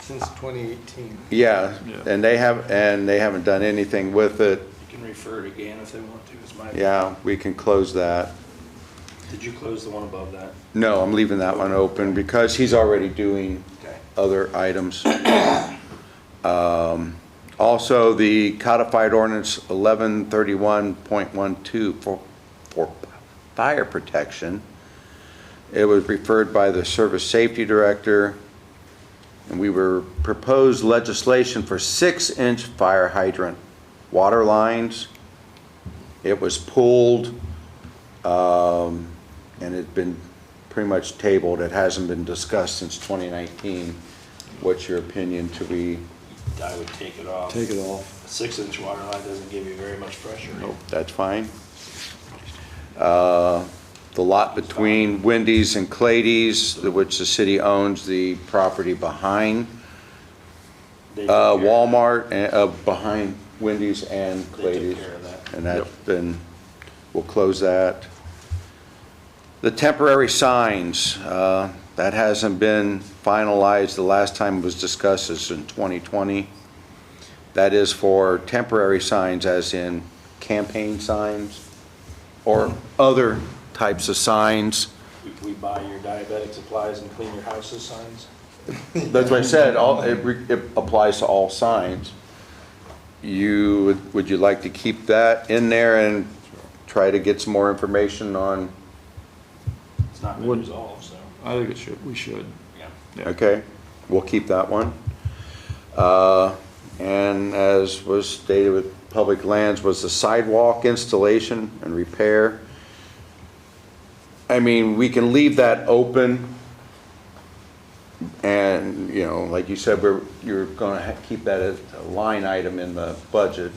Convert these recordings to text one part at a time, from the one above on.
since 2018. Yeah, Yeah. and they have, and they haven't done anything with it. You can refer it again if they want to, is my. Yeah, we can close that. Did you close the one above that? No, I'm leaving that one open because he's already doing Okay. other items. Um, Also, the codified ordinance 1131.12 for, for fire protection. It was referred by the Service Safety Director, and we were proposed legislation for six-inch fire hydrant water lines. It was pulled, um, and it's been pretty much tabled. It hasn't been discussed since 2019. What's your opinion? To we, I would take it off. Take it off. A six-inch water line doesn't give you very much pressure. nope, that's fine. Uh, The lot between Wendy's and Clady's, which the city owns the property behind They took uh, care- Walmart, and, uh, behind Wendy's and They took Clady's. care of that. And that, then we'll close that. The temporary signs, uh, that hasn't been finalized. The last time it was discussed is in 2020. That is for temporary signs as in campaign signs or other types of signs. We- We buy your diabetic supplies and clean your houses signs? That's what I said, all, it, re- it applies to all signs. You, would you like to keep that in there and try to get some more information on, It's not been Would- resolved, so, I think it should, we should. yeah. Yeah. okay? We'll keep that one. Uh, and as was stated with public lands, was the sidewalk installation and repair. I mean, we can leave that open. And, you know, like you said, we're, you're gonna ha- keep that as a line item in the budget,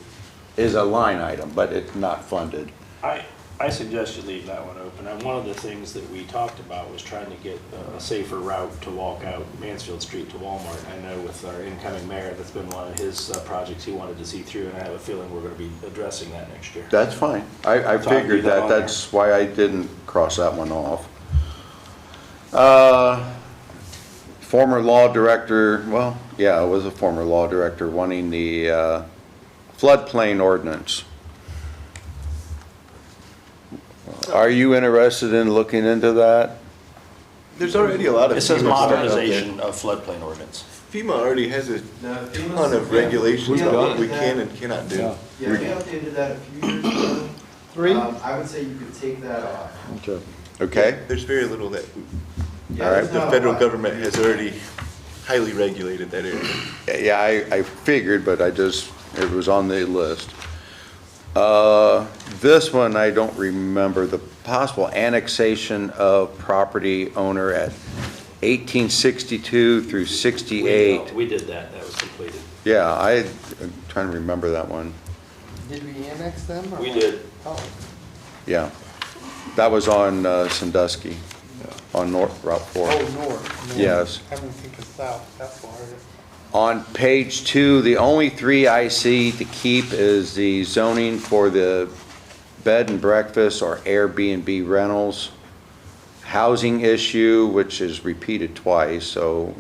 is a line item, but it's not funded. I, I suggest you leave that one open. And one of the things that we talked about was trying to get a safer route to walk out Mansfield Street to Walmart. I know with our incoming mayor, that's been one of his uh, projects he wanted to see through, and I have a feeling we're gonna be addressing that next year. That's fine. I, I So I'll figured leave that that, on there. that's why I didn't cross that one off. Uh, Former law director, well, yeah, it was a former law director wanting the uh, floodplain ordinance. Are you interested in looking into that? There's already a lot of. It says FEMA stuff out there. modernization of floodplain ordinance. FEMA already has a The FEMA ton of yeah. regulations We've about done what it. we can and cannot do. Yeah, we updated that a few years ago. Three? Um, I would say you could take that off. Okay, There's very little that, Yeah, All right. there's the not a federal lot. government has already highly regulated that area. yeah, I, I figured, but I just, it was on the list. Uh, This one, I don't remember, the possible annexation of property owner at 1862 through We- 68. We did that, that was completed. Yeah, I, I'm trying to remember that one, Did we annex them? or We what? did. Oh. yeah. That was on uh, Sandusky, on North Route 4. Oh, north. north. Yes. I didn't think of south, that far. On page two, the only three I see to keep is the zoning for the bed and breakfast or Airbnb rentals. Housing issue, which is repeated twice, so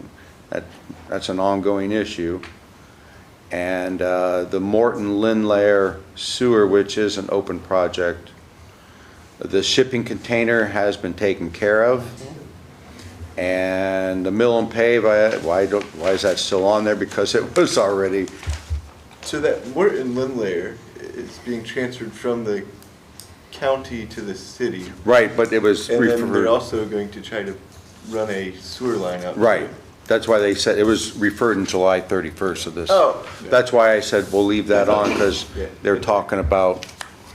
that, that's an ongoing issue. And, uh, the Morton Linlayer sewer, which is an open project. The shipping container has been taken care of. And the mill and pave, I, why don't, why is that still on there? Because it was already, So that Morton Lindlayer is being transferred from the county to the city. right, but it was And then they're referred, also going to try to run a sewer line out. right. That's why they said, it was referred in July 31st of this. Oh. That's why I said, we'll leave that on, because Yeah. they're talking about,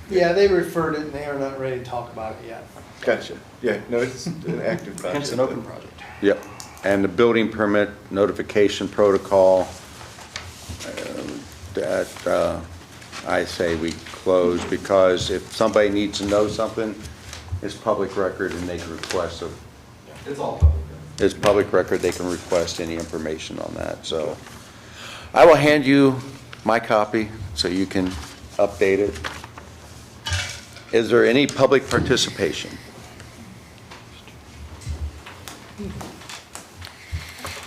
Yeah, they referred it and they are not ready to talk about it yet. Gotcha. Yeah, no, it's an active project. Hence an open project. yep. And the building permit notification protocol, uh, that, uh, I say we close, because if somebody needs to know something, it's public record and they can request it. It's all public. then. It's public record, they can request any information on that, so. I will hand you my copy, so you can update it. Is there any public participation?